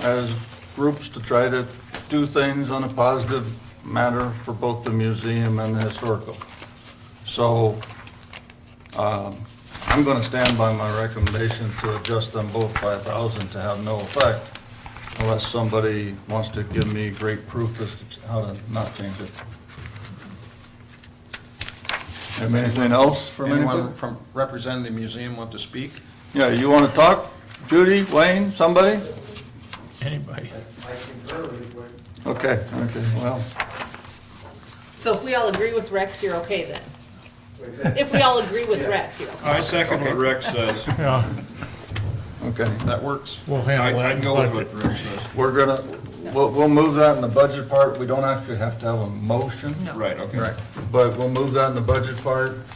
as groups to try to do things on a positive matter for both the museum and the historical. So um, I'm going to stand by my recommendation to adjust them both by a thousand to have no effect unless somebody wants to give me great proof as to how to not change it. Have anything else from Anyone anyone? from representing the museum want to speak? Yeah, you want to talk? Judy, Wayne, somebody? Anybody? Okay, okay, well, So if we all agree with Rex, you're okay then? If we all agree with Rex, you're okay? I second what Rex says. Yeah, okay. That works. we'll I, handle that. I'd go with what Rex says. We're gonna, we'll, we'll move that in the budget part. We don't actually have to have a motion. No. Right, okay. Right, but we'll move that in the budget part.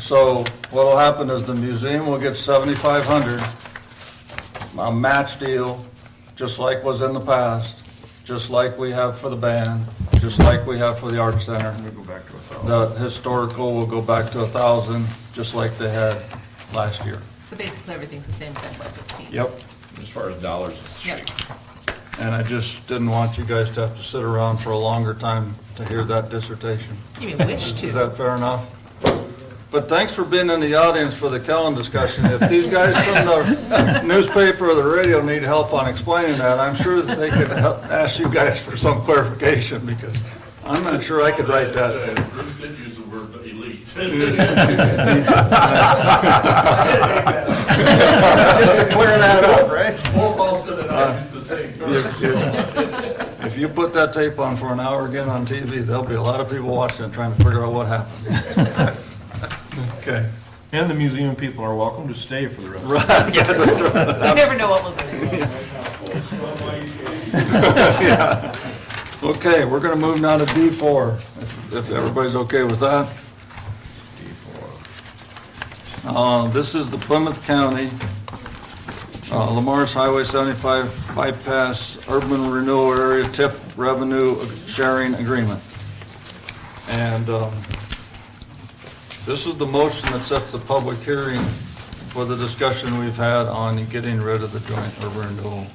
So what'll happen is the museum will get seventy-five hundred, a match deal, just like was in the past, just like we have for the band, just like we have for the art center. We go back to a thousand. The historical will go back to a thousand, just like they had last year. So basically, everything's the same except for 15. Yep. As far as dollars is Yeah. cheap. And I just didn't want you guys to have to sit around for a longer time to hear that dissertation. You may wish Is- Is to. that fair enough? But thanks for being in the audience for the Kellen discussion. If these guys from the newspaper or the radio need help on explaining that, I'm sure that they could help ask you guys for some clarification, because I'm not sure I could write that. Bruce did use the word elite. Just to clear that up, right? Both Austin and I use the same term. If you put that tape on for an hour again on TV, there'll be a lot of people watching it trying to figure out what happened. Okay. And the museum people are welcome to stay for the rest. of You never know what will go next. Okay, we're gonna move now to D4, if if everybody's okay with that. D4. Uh, This is the Plymouth County, uh, Lamar's Highway 75 bypass urban renewal area TIF revenue sharing agreement. And um, this is the motion that sets the public hearing for the discussion we've had on getting rid of the joint urban renewal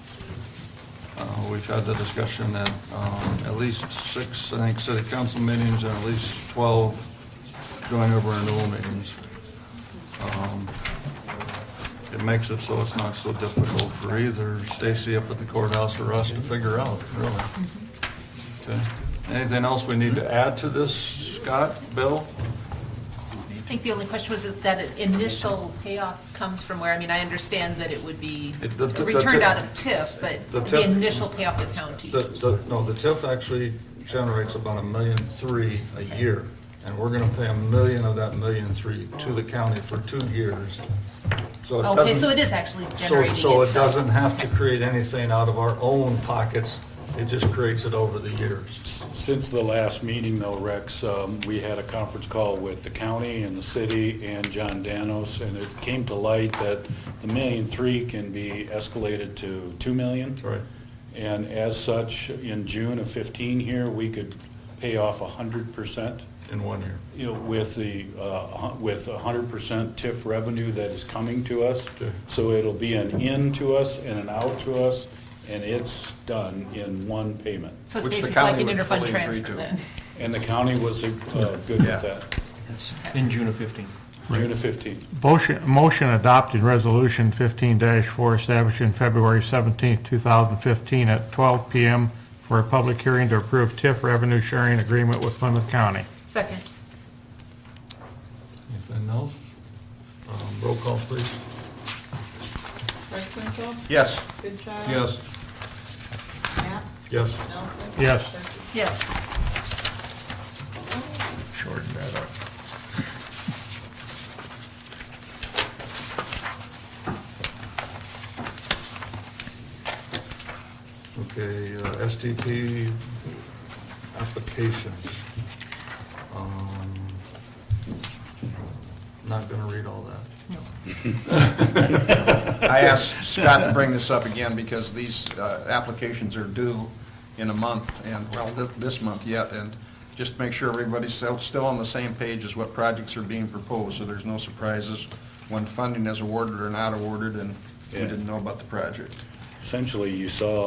uh, We've had the discussion at um, at least six, I think, city council meetings and at least 12 joint over renewal meetings. Um, It makes it so it's not so difficult for either Stacy up at the courthouse or us to figure out, really. Okay. Anything else we need to add to this, Scott, Bill? I think the only question was that that initial payoff comes from where, I mean, I understand that it would be It- the- the- returned the- out of TIF, the but TIF the initial payoff to county. The, the, no, the TIF actually generates about a million three a year, and we're gonna pay a million of that million three to the county for two years. So it Oh, Okay, so doesn't- it is actually generating So, so it itself. doesn't have to Okay. create anything out of our own pockets, it just creates it over the years. Since the last meeting though, Rex, um, we had a conference call with the county and the city and John Danos, and it came to light that the million three can be escalated to two million. Right. And as such, in June of fifteen here, we could pay off a hundred percent, In one year. you know, with the, uh, hu- with a hundred percent TIF revenue that is coming to us. Sure. So it'll be an in to us and an out to us, and it's done in one payment. So it's Which the basically like county an would interfund fully agree transfer to. then. And the county was uh, good Yeah. with that, In June of 15. June of 15. Motion, motion adopted resolution fifteen four establishing February seventeenth, two thousand fifteen at twelve PM for a public hearing to approve TIF revenue sharing agreement with Plymouth County. Second, Anything else? Um, roll call, please. Yes. Yes. Yes. Yes, yes. shorten that up. Okay, uh, STP applications. Um, Not gonna read all that. I asked Scott to bring this up again because these uh, applications are due in a month and, well, thi- this month yet. And just to make sure everybody's still- still on the same page as what projects are being proposed, so there's no surprises when funding is awarded or not awarded and we Yeah. didn't know about the project. Essentially, you saw